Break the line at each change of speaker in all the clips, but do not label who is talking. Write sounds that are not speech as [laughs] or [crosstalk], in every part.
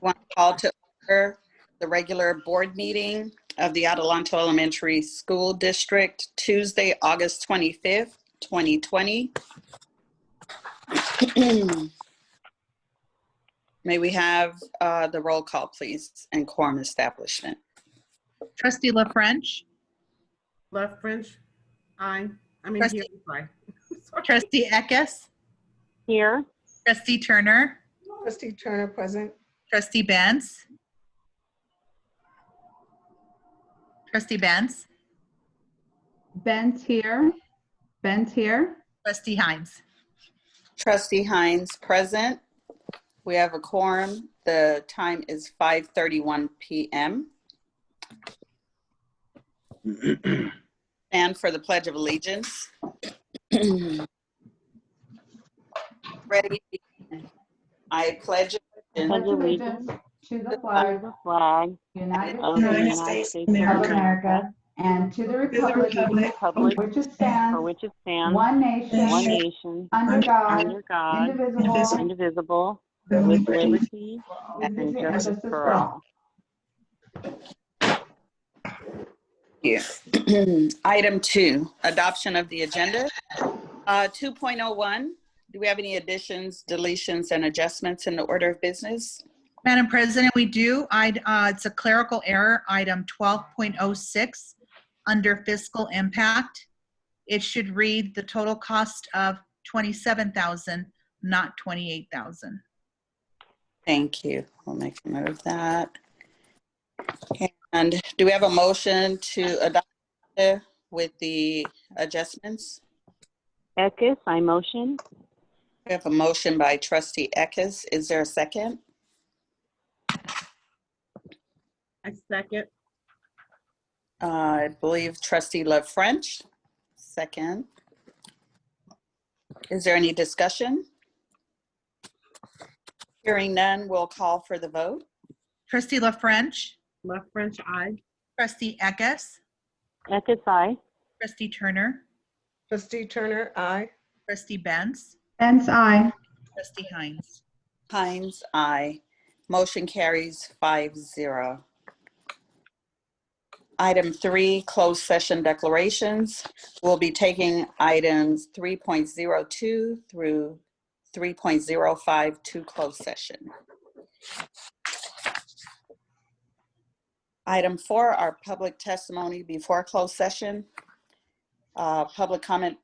Want to call to order the regular board meeting of the Adelanto Elementary School District, Tuesday, August 25th, 2020. [clears throat] May we have uh, the roll call, please, and quorum establishment?
Trustee La French,
Left French, aye. I mean,
Trustee-
here, sorry. [laughs] Sorry.
Trustee Eckes,
Here.
Trustee Turner,
Trustee Turner present.
Trustee Benz. Trustee Benz,
Ben's here. Ben's here.
Trustee Hines.
Trustee Hines present. We have a quorum. The time is 5:31 PM. And for the Pledge of Allegiance. Ready? I pledge allegiance
Pledge allegiance
To the
To
flag,
the flag
United
of the
States
United States
of
of
America, and to the republic
America, Republic
which
for
stands
which it stands,
one
one
nation,
nation,
under God,
under God,
indivisible,
indivisible, with
with
liberty and
liberty and
justice for all.
Thank you. Item two, adoption of the agenda. Uh, 2.01, do we have any additions, deletions, and adjustments in the order of business?
Madam President, we do, I, uh, it's a clerical error, item 12.06, under fiscal impact. It should read the total cost of 27,000, not 28,000.
Thank you. I'll make a note of that. And do we have a motion to adopt it with the adjustments?
Eckes, I motion.
We have a motion by trustee Eckes. Is there a second?
I second.
Uh, I believe trustee Love French, second. Is there any discussion? Hearing none, we'll call for the vote.
Trustee La French,
Left French, aye.
Trustee Eckes,
Eckes, I.
Trustee Turner,
Trustee Turner, aye.
Trustee Benz,
Ben's aye.
Trustee Hines.
Hines, aye. Motion carries five zero. Item three, closed session declarations. We'll be taking items 3.02 through 3.05 to closed session. Item four, our public testimony before closed session. Uh, Public comment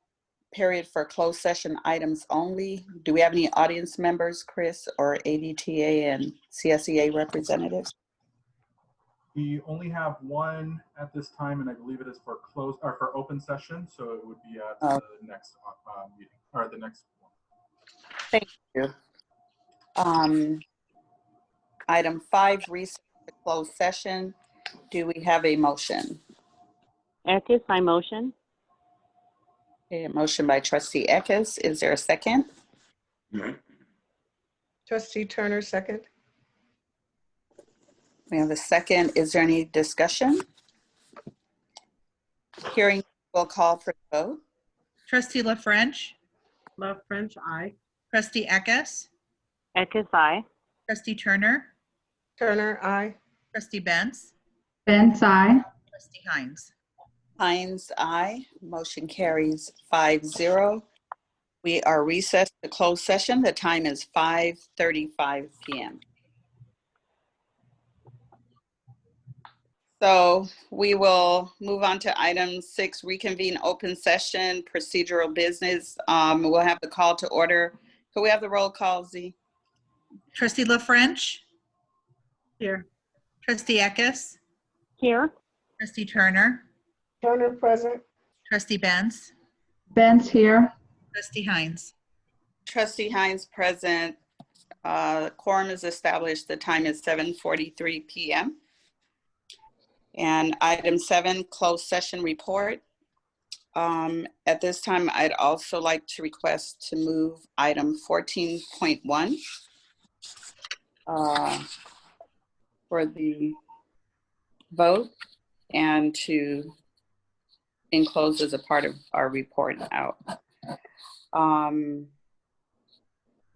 period for closed session items only. Do we have any audience members, Chris, or ADTA and CSEA representatives?
We only have one at this time, and I believe it is for close, or for open session, so it would be at
Oh.
the next uh, uh, meeting, or the next one.
Um, Item five, recess to closed session. Do we have a motion?
Eckes, I motion.
A motion by trustee Eckes. Is there a second?
Trustee Turner, second.
We have a second. Is there any discussion? Hearing, we'll call for the vote.
Trustee La French,
Left French, aye.
Trustee Eckes,
Eckes, I.
Trustee Turner,
Turner, aye.
Trustee Benz,
Ben's aye.
Trustee Hines.
Hines, aye. Motion carries five zero. We are recessed to closed session. The time is 5:35 PM. So we will move on to item six, reconvene open session, procedural business. Um, We'll have the call to order. Could we have the roll call, Z?
Trustee La French,
Here.
Trustee Eckes,
Here.
Trustee Turner,
Turner, present.
Trustee Benz,
Ben's here.
Trustee Hines.
Trustee Hines present. Uh, Quorum is established. The time is 7:43 PM. And item seven, closed session report. Um, At this time, I'd also like to request to move item 14.1 uh, for the vote and to enclose as a part of our report out. Um,